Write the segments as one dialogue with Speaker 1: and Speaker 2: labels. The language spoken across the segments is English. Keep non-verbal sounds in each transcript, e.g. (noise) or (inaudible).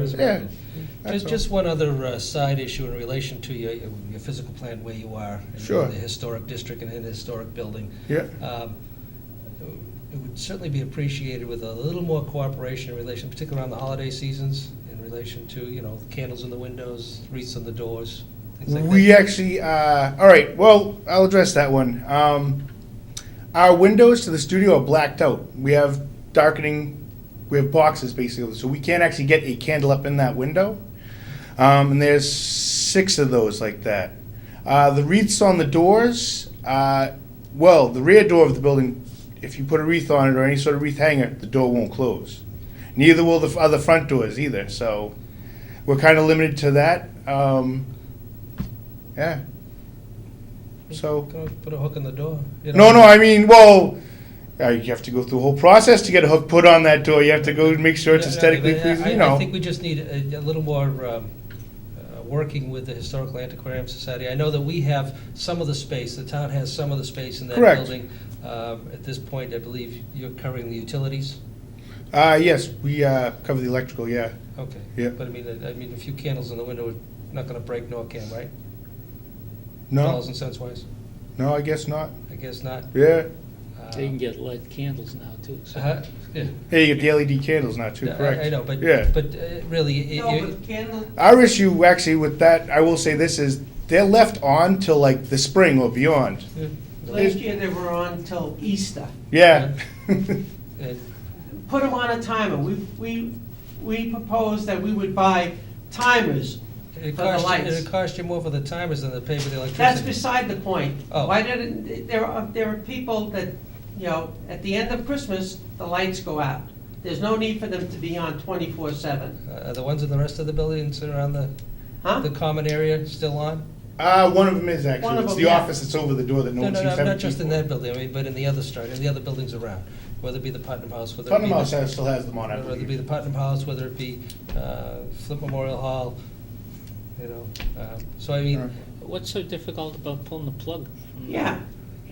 Speaker 1: is
Speaker 2: Yeah,
Speaker 1: written.
Speaker 2: that's
Speaker 1: Just,
Speaker 2: all.
Speaker 1: just one other uh, side issue in relation to your, your physical plan where you are. in
Speaker 2: Sure.
Speaker 1: The historic district and in the historic building.
Speaker 2: Yeah.
Speaker 1: Um, It would certainly be appreciated with a little more cooperation in relation, particularly around the holiday seasons, in relation to, you know, candles in the windows, wreaths on the doors, things like that.
Speaker 2: We actually, uh, all right, well, I'll address that one. Um, our windows to the studio are blacked out. We have darkening, we have boxes basically, so we can't actually get a candle up in that window. Um, and there's six of those like that. Uh, the wreaths on the doors, uh, well, the rear door of the building, if you put a wreath on it or any sort of wreath hanger, the door won't close. Neither will the f- other front doors either, so we're kind of limited to that. Um, yeah. So.
Speaker 1: Go Put a hook in the door. you
Speaker 2: No,
Speaker 1: know.
Speaker 2: no, I mean, well, uh, you have to go through a whole process to get a hook put on that door. You have to go and make sure it's
Speaker 1: Yeah, no,
Speaker 2: aesthetically
Speaker 1: but I-
Speaker 2: pleasing,
Speaker 1: I-
Speaker 2: you know.
Speaker 1: I think we just need a, a little more, um, uh, working with the Historical Antiquarian Society. I know that we have some of the space, the town has some of the space in that
Speaker 2: Correct.
Speaker 1: building. Um, At this point, I believe you're covering the utilities?
Speaker 2: Uh, yes, we, uh, cover the electrical, yeah.
Speaker 1: Okay.
Speaker 2: Yeah.
Speaker 1: But I mean, I- I mean, a few candles in the window, are not gonna break NORCAM, right?
Speaker 2: No,
Speaker 1: Dollars and cents wise?
Speaker 2: no, I guess not.
Speaker 1: I guess not.
Speaker 2: Yeah.
Speaker 3: They can
Speaker 1: Um,
Speaker 3: get lit candles now, too,
Speaker 1: uh-huh,
Speaker 3: so.
Speaker 1: yeah.
Speaker 2: Hey, you get the LED candles now too,
Speaker 1: I-
Speaker 2: correct?
Speaker 1: I know, but,
Speaker 2: Yeah.
Speaker 1: but uh, really, it-
Speaker 4: No,
Speaker 1: you-
Speaker 4: but candle,
Speaker 2: Our issue actually with that, I will say this, is they're left on till like the spring or beyond.
Speaker 4: last year they were on till Easter.
Speaker 2: Yeah. (laughs)
Speaker 1: it-
Speaker 4: Put them on a timer. We, we, we proposed that we would buy timers.
Speaker 1: it
Speaker 4: For the
Speaker 1: cost, you-
Speaker 4: lights.
Speaker 1: it cost you more for the timers than the pay for the electricity.
Speaker 4: That's beside the point.
Speaker 1: Oh.
Speaker 4: Why didn't, there are, there are people that, you know, at the end of Christmas, the lights go out. There's no need for them to be on twenty-four seven,
Speaker 1: Uh, Are the ones in the rest of the buildings around the,
Speaker 4: huh?
Speaker 1: the common area still on?
Speaker 2: Uh, one of them is
Speaker 4: One
Speaker 2: actually.
Speaker 4: of
Speaker 2: It's
Speaker 4: them,
Speaker 2: the
Speaker 4: yeah.
Speaker 2: office that's over the door that no
Speaker 1: No,
Speaker 2: one
Speaker 1: no,
Speaker 2: seems
Speaker 1: no,
Speaker 2: to have.
Speaker 1: not
Speaker 2: a
Speaker 1: just
Speaker 2: key
Speaker 1: in
Speaker 2: for.
Speaker 1: that building, I mean, but in the other start, in the other buildings around, whether it be the Putnam House, whether it be.
Speaker 2: Putnam
Speaker 1: the-
Speaker 2: House has- still has them on, I
Speaker 1: Whether it be
Speaker 2: believe.
Speaker 1: the Putnam House, whether it be uh, Flint Memorial Hall, you know, um, so I mean,
Speaker 2: Right.
Speaker 3: What's so difficult about pulling the plug? from the-
Speaker 4: Yeah,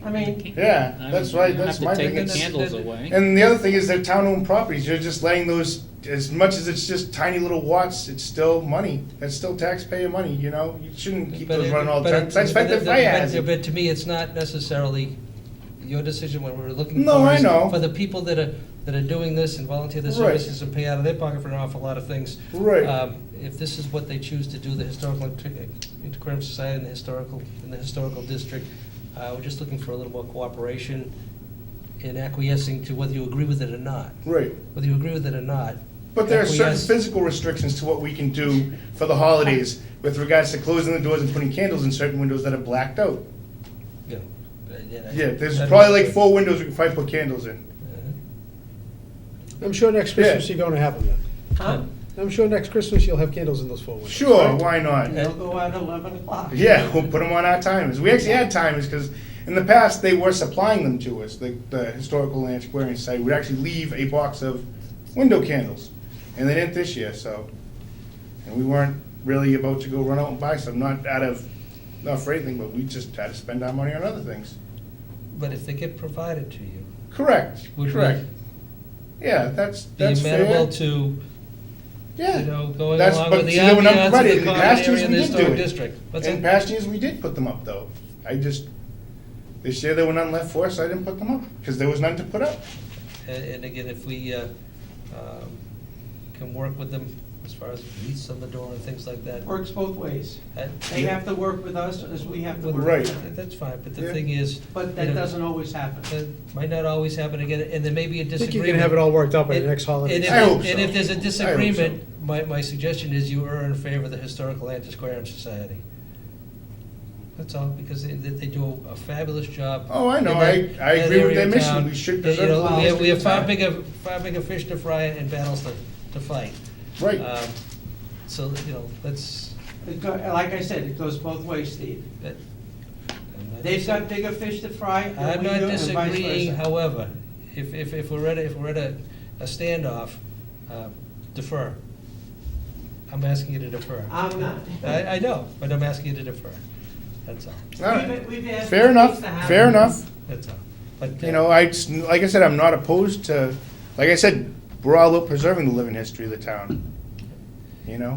Speaker 4: I mean,
Speaker 2: Yeah,
Speaker 3: I mean,
Speaker 2: that's right,
Speaker 3: you don't
Speaker 2: that's my
Speaker 3: Have to
Speaker 2: thing.
Speaker 3: take the candles away.
Speaker 2: And the other thing is they're town-owned properties, you're just letting those, as much as it's just tiny little watts, it's still money, it's still taxpayer money, you know? You shouldn't keep
Speaker 1: But
Speaker 2: those
Speaker 1: it-
Speaker 2: running all the
Speaker 1: but
Speaker 2: time,
Speaker 1: it-
Speaker 2: that's
Speaker 1: but
Speaker 2: like the
Speaker 1: it-
Speaker 2: fire
Speaker 1: but-
Speaker 2: hazard.
Speaker 1: But to me, it's not necessarily your decision when we're looking for.
Speaker 2: No, I
Speaker 1: is
Speaker 2: know.
Speaker 1: For the people that are, that are doing this and volunteer their
Speaker 2: Right.
Speaker 1: services and pay out of their pocket for an awful lot of things.
Speaker 2: Right.
Speaker 1: um, If this is what they choose to do, the Historical Antiqu- Antiquarian Society and the Historical, and the Historical District, uh, we're just looking for a little more cooperation in acquiescing to whether you agree with it or not.
Speaker 2: Right,
Speaker 1: Whether you agree with it or not.
Speaker 2: but there are certain
Speaker 1: acquiesce.
Speaker 2: physical restrictions to what we can do for the holidays with regards to closing the doors and putting candles in certain windows that are blacked out.
Speaker 1: Yeah. I-
Speaker 2: Yeah, there's
Speaker 1: I-
Speaker 2: probably like four windows we can probably put candles in.
Speaker 1: Uh-huh.
Speaker 5: I'm sure next
Speaker 2: Yeah.
Speaker 5: Christmas you're gonna have them then.
Speaker 4: huh?
Speaker 5: I'm sure next Christmas you'll have candles in those four windows.
Speaker 2: Sure,
Speaker 5: right?
Speaker 2: why not?
Speaker 4: They'll go out eleven o'clock.
Speaker 2: Yeah, (laughs) we'll put them on our timers. We actually had timers because in the past they were supplying them to us. The, the Historical Antiquarian Society would actually leave a box of window candles, and they didn't this year. So, and we weren't really about to go run out and buy some. Not out of not for anything, but we just had to spend our money on other things.
Speaker 1: But if they get provided to you,
Speaker 2: Correct.
Speaker 1: Would we
Speaker 2: correct. Yeah, that's
Speaker 1: be
Speaker 2: that's
Speaker 1: amenable
Speaker 2: fair.
Speaker 1: to, you
Speaker 2: yeah.
Speaker 1: know, going
Speaker 2: That's-
Speaker 1: along
Speaker 2: but
Speaker 1: with the
Speaker 2: see, they were not
Speaker 1: ambiance of
Speaker 2: provided.
Speaker 1: the
Speaker 2: In
Speaker 1: common
Speaker 2: past years,
Speaker 1: area and
Speaker 2: we
Speaker 1: the
Speaker 2: did do
Speaker 1: historic
Speaker 2: it.
Speaker 1: district. What's
Speaker 2: in
Speaker 1: that?
Speaker 2: past years, we did put them up though. I just this year there were none left for us. I didn't put them up because there was none to put up.
Speaker 1: And and again, if we uh, um, can work with them as far as lease on the door and things like that.
Speaker 4: Works both ways.
Speaker 1: that-
Speaker 4: They have to work with us as we have to
Speaker 1: with-
Speaker 4: work with
Speaker 2: Right.
Speaker 4: them.
Speaker 1: That's fine, but the
Speaker 2: Yeah.
Speaker 1: thing is.
Speaker 4: But
Speaker 1: you
Speaker 4: that
Speaker 1: know,
Speaker 4: doesn't always happen.
Speaker 1: That might not always happen again, and there may be a
Speaker 5: I
Speaker 1: disagreement.
Speaker 5: think you can have it all worked out by the
Speaker 1: And-
Speaker 5: next
Speaker 1: And
Speaker 5: holiday.
Speaker 1: if,
Speaker 2: I hope
Speaker 1: and
Speaker 2: so.
Speaker 1: if there's
Speaker 2: I
Speaker 1: a
Speaker 2: hope
Speaker 1: disagreement,
Speaker 2: so.
Speaker 1: my, my suggestion is you are in favor of the Historical Antiquarian Society. That's all, because they, they they do a fabulous job.
Speaker 2: Oh, I know.
Speaker 1: in that-
Speaker 2: I- I
Speaker 1: that
Speaker 2: agree with
Speaker 1: area
Speaker 2: their
Speaker 1: of
Speaker 2: mission.
Speaker 1: town.
Speaker 2: We should
Speaker 1: You
Speaker 2: preserve
Speaker 1: know,
Speaker 2: the
Speaker 1: We have,
Speaker 2: lost
Speaker 1: we have
Speaker 2: in
Speaker 1: far
Speaker 2: time.
Speaker 1: bigger, far bigger fish to fry and battles to, to fight.
Speaker 2: Right.
Speaker 1: Um, So, you know, let's. uh,
Speaker 4: It go- Like I said, it goes both ways, Steve.
Speaker 1: that- I'm not
Speaker 4: They've got
Speaker 1: disag-
Speaker 4: bigger fish to fry than
Speaker 1: I'm
Speaker 4: we
Speaker 1: not
Speaker 4: do, and vice
Speaker 1: disagreeing,
Speaker 4: versa.
Speaker 1: however, if, if, if we're at, a- if we're at a, a standoff, uh, defer. I'm asking you to defer.
Speaker 4: I'm not.
Speaker 1: I, I know, but I'm asking you to defer. That's all,
Speaker 2: All right.
Speaker 4: We've- we've asked
Speaker 2: Fair
Speaker 4: for
Speaker 2: enough.
Speaker 4: things to happen.
Speaker 2: Fair enough.
Speaker 1: that's all. But, uh,
Speaker 2: You know, I just, like I said, I'm not opposed to. Like I said, we're all about preserving the living history of the town. you know?